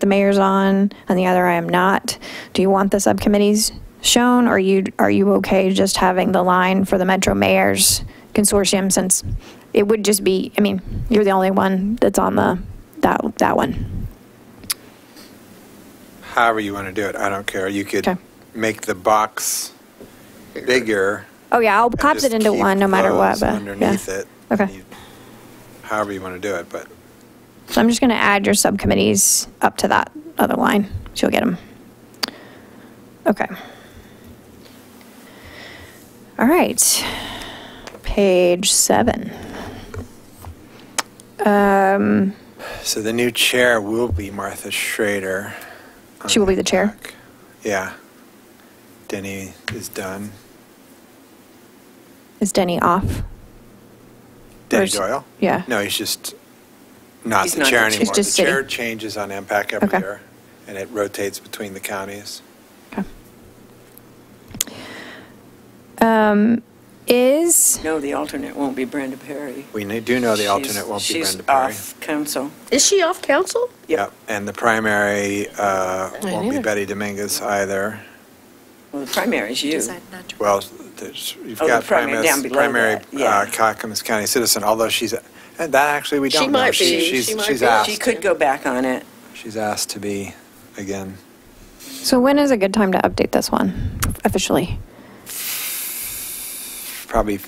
the mayor's on and the other I am not. Do you want the subcommittees shown or you, are you okay just having the line for the Metro Mayor's Consortium since it would just be, I mean, you're the only one that's on the, that, that one. however you want to do it, I don't care. You could Okay. make the box bigger. Oh, yeah, I'll and collapse it just into keep one no matter what, those but. yeah. Underneath it. Okay. You- However you want to do it, but So I'm just going to add your subcommittees up to that other line. She'll get them. Okay. All right. Page seven. Um, So the new chair will be Martha Schrader. on She will be the chair? back. Yeah. Denny is done. is Denny off? Denny Where's- Doyle? yeah. No, he's just not He's the not chair the chair. anymore. He's just The chair sitting. changes on MPAC every Okay. year, and it rotates between the counties. Okay. Um, is, No, the alternate won't be Brenda Perry. We kn- do know the She's- alternate won't be Brenda Perry. She's off council. Is she off council? Yep, and the primary uh, won't be neither. Betty Dominguez either. Well, the primary is you. Decide not to- Well, there's, you've Oh, the got primary primary, down below primary that, yeah. uh, Clackamas County citizen, although she's, and that actually, we She don't know. might be, She's, she might she's She be. asked, could go back on it. she's asked to be again. so when is a good time to update this one officially? Probably,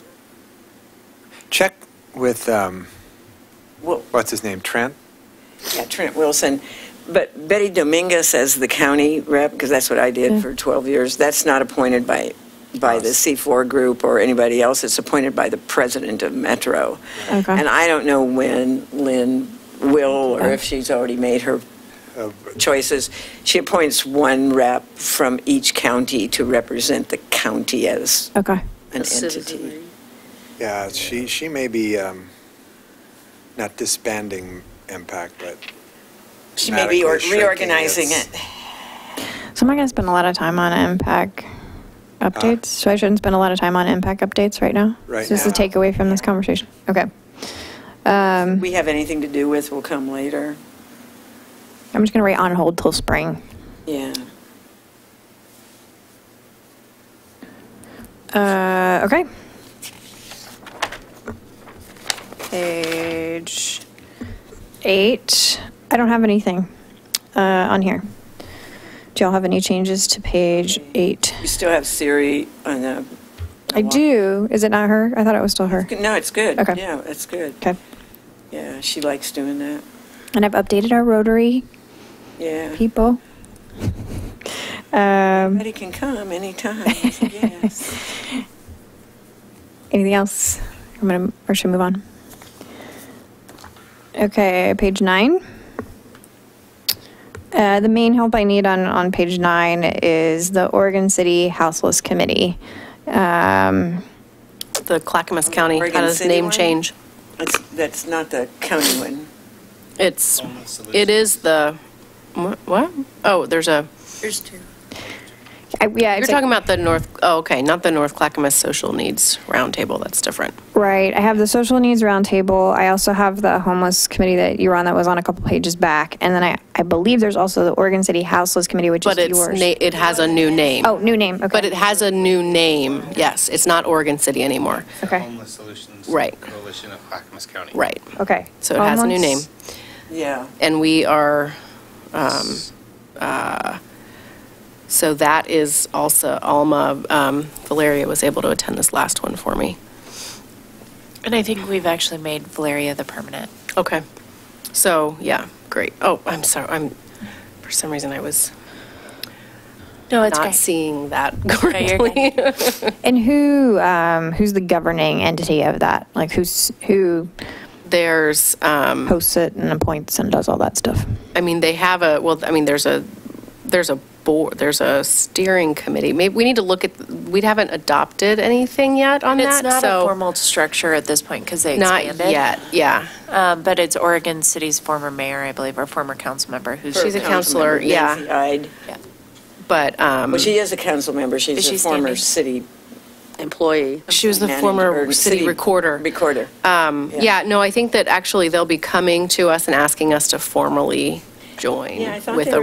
check with, um, Well, what's his name, Trent? yeah, Trent Wilson. But Betty Dominguez as the county rep, because that's what I Yeah. did for 12 years, that's not appointed by, by the C4 group or anybody else. It's appointed by the president of Metro. Okay. And I don't know when Lynn will, Mm-hmm. or if she's already made her Uh, choices. She appoints one rep from each county to represent the county as Okay. an A citizen, entity. right? Yeah, she, she may be, um, not disbanding Impact, but. She may be or- dramatically shrinking reorganizing its- it. So am I going to spend a lot of time on impact updates? So I shouldn't spend a lot of time on impact updates right now? Right Is this the now. takeaway from this conversation? Okay. Um, We have anything to do with, will come later. I'm just going to write on hold till spring. Yeah. Uh, okay. Page eight. I don't have anything uh, on here. Do y'all have any changes to page eight? We still have Siri on the. I do. Is it not her? I thought it was still her. No, it's good. Okay. Yeah, it's good. Okay. Yeah, she likes doing that. And I've updated our Rotary Yeah. people. Um, Betty can come anytime. I said, Yes. anything else? I'm gonna, or should we move on? Okay, page nine. Uh, the main help I need on, on page nine is the Oregon City Houseless Committee. Um, The Clackamas County Oregon had a City name one? change. That's, that's not the county one. It's, it is the, wha- what? Oh, there's a, There's two. I- yeah, you're it's like- talking about the North, oh, okay, not the North Clackamas Social Needs Roundtable, that's different. Right. I have the social needs roundtable. I also have the homeless committee that you were on that was on a couple pages back. And then I, I believe there's also the Oregon City Houseless Committee, which But is it's, yours. na- it has a new name. Oh, new name. Okay. But it has a new name, yes, it's not Oregon City anymore, Okay. Homeless Solutions Right. Coalition of Clackamas County. right. Okay. So it has a new name. Homeless- Yeah. And we are, um, uh, so that is also, Alma, um, Valeria was able to attend this last one for me. And I think we've actually made Valeria the permanent. Okay. So, yeah, great. Oh, I'm sorry, I'm, for some reason I was No, it's not great. seeing that No, you're good. correctly. And who um, who's the governing entity of that? Like who's who There's, um, hosts it and appoints and does all that stuff? I mean, they have a, well, I mean, there's a, there's a board, there's a steering committee. Maybe, we need to look at, we haven't adopted anything yet on that, so. It's not a formal structure at this point because they Not expanded. yet, yeah. Um, But it's Oregon City's former mayor, I believe, or former council member who's. She's a Councilmember counselor, yeah. Nancy Hyde. Yeah. But, um, Well, she is a council member. Is She's a she former standing? city employee. She was the manager- former or city recorder. Recorder. um, Yeah. yeah, no, I think that actually they'll be coming to us and asking us to formally join Yeah, I thought with they a were